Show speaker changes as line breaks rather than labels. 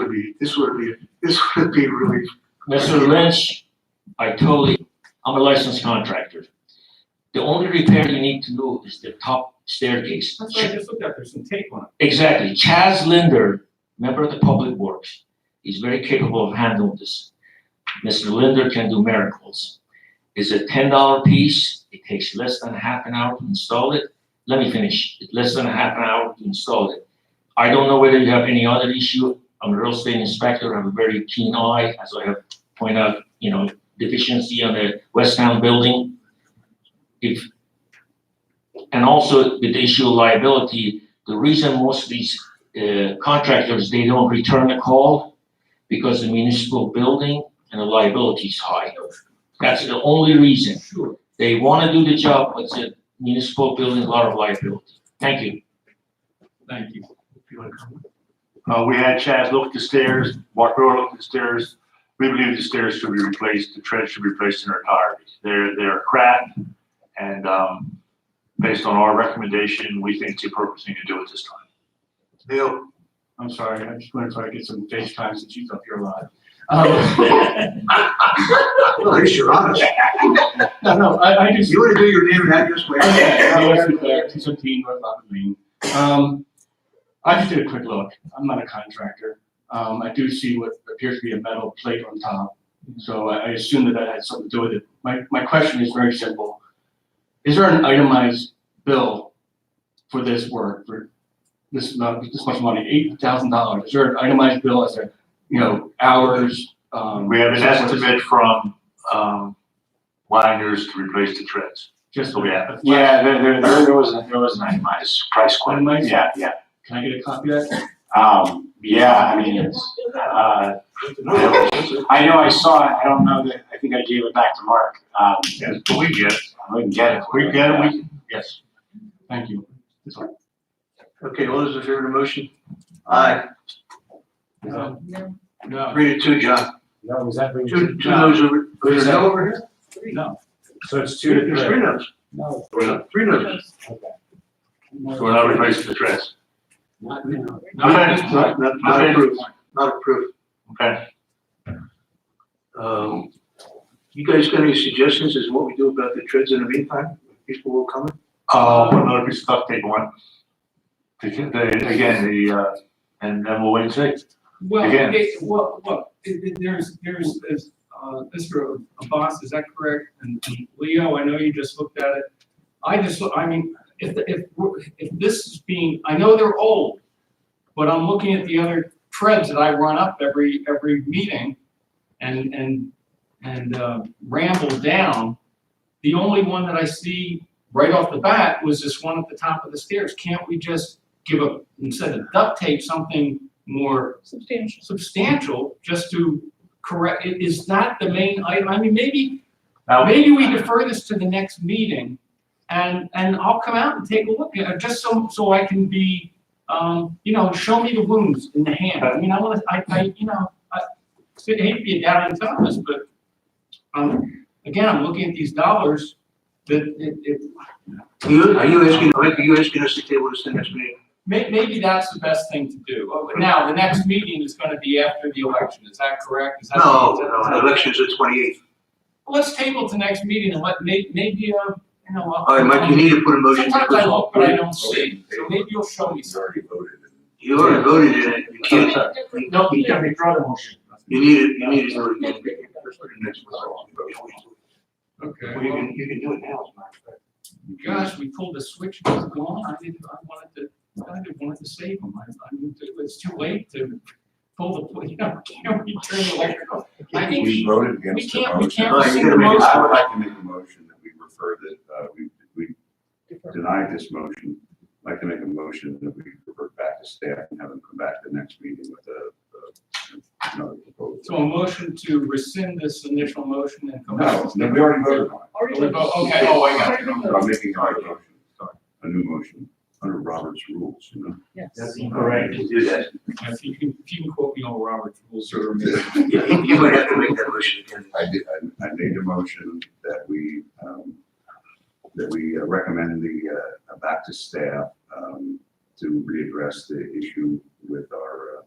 be, this would be, this would be really,
Mr. Lynch, I totally, I'm a licensed contractor. The only repair you need to do is the top staircase.
That's what I just looked at, there's some tape on it.
Exactly. Chaz Linder, member of the Public Works, he's very capable of handling this. Mr. Linder can do miracles. It's a ten dollar piece. It takes less than half an hour to install it. Let me finish. It's less than half an hour to install it. I don't know whether you have any other issue. I'm a real estate inspector. I have a very keen eye, as I have pointed out, you know, deficiency on the West Town building. If, and also with the issue of liability, the reason most of these uh, contractors, they don't return the call because the municipal building and the liability is high. That's the only reason.
Sure.
They want to do the job, but the municipal building, a lot of liability. Thank you.
Thank you.
Uh, we had Chaz look at the stairs, Mark Brewer looked at the stairs. We believe the stairs should be replaced, the treads should be replaced in their entirety. They're, they're cracked and, um, based on our recommendation, we think it's the appropriate thing to do at this time.
Neil,
I'm sorry, I just wanted to try to get some FaceTime since she's up here live.
well, at least you're honest.
No, no, I, I just.
You want to do your name and address, wait.
Yes, it's there, 217 North Lockwood Lane. Um, I just did a quick look. I'm not a contractor. Um, I do see what appears to be a metal plate on top. So I I assume that that had something to do with it. My, my question is very simple. Is there an itemized bill for this work, for this, amount- this much money, eight thousand dollars? Is there an itemized bill as a, you know, hours? um,
We have an
so forth?
estimate from, um, liners to replace the treads.
Just.
So we have-
a flash-
Yeah, there, there, there there was, there was an itemized price quote.
Itemized?
Yeah, yeah.
Can I get a copy of that?
Um, yeah, I mean, it's, uh, I know I saw it, I don't know that, I think I gave it back to Mark. Um,
Yes, but we get, it.
I wouldn't get it.
we get, it, we, can- yes.
Thank you.
Okay, all those in favor of the motion? Aye.
No. No.
Read it too, John.
No, was that?
Two, two no's over, there's no over here?
No.
So it's two to
There's
three?
three no's,
No.
three no's.
Okay.
So we're not replacing the treads.
Not now.
Not, not, not approved, not approved.
Okay.
Um, you guys got any suggestions as what we do about the treads in the meantime? People will come in?
Uh, put another piece of duct tape on. To get the- Again, the, uh, and then we'll wait and see.
Well,
Again.
it, well, look, it, it, there's, there's, there's, uh, Mr. Abbas, is that correct? And and Leo, I know you just looked at it. I just, look- I mean, if, the- if, we're- if this is being, I know they're old, but I'm looking at the other treads that I run up every, every meeting and, and, and, uh, ramble down. The only one that I see right off the bat was this one at the top of the stairs. Can't we just give a, instead of duct tape, something more
Substantial.
substantial just to correct, it is not the main item. I mean, maybe,
Now,
maybe we defer this to the next meeting and, and I'll come out and take a look at it, just so, so I can be, um, you know, show me the wounds in the hand. I mean, I wanna, I, I, you know, I, I hate to be a down in Thomas, but, um, again, I'm looking at these dollars that it, it,
Are you, are you asking, Mike, are you asking us to table this the next meeting?
may, maybe that's the best thing to do. Oh, but Now, the next meeting is gonna be after the election, is that correct? Is that-
No,
is that-
no, the election's the twenty-eighth.
Well, Let's table to next meeting and let, may, maybe, uh, you know. I'll-
All right, Mike, you need to put a motion. to
Sometimes I
approve.
look, but I don't see, so maybe you'll show me something.
You already voted in it, you can't,
No, you can withdraw the motion.
you need it, you need it. for the next one.
Okay.
Well, you can, you can do it now, as a matter of fact.
Gosh, we pulled a switch, it was gone, I didn't, I wanted to, I didn't want to save them, I, I mean, it was too late to pull the, you know, can't we turn the electrical? I think
We voted against the
we can't- we
motion.
can't
Right, rescind you gotta the make a- motion.
I would like to make a motion that we refer that, uh, we, we deny this motion. I'd like to make a motion that we revert back to staff and have them come back to the next meeting with a, a- another
So
proposal.
a motion to rescind this initial motion and come back.
No, no, we already voted on
Already.
Okay, oh, I got it.
it. So I'm making a motion, a new motion, under Robert's rules, you know?
Yes.
Correct.
You can do that.
If you can, if you can quote me on Robert's rules or.
You- You you might have to make that motion again.
I did, I, I made a motion that we, um, that we uh, recommend the, uh, back to staff, um, to readdress the issue with our, uh,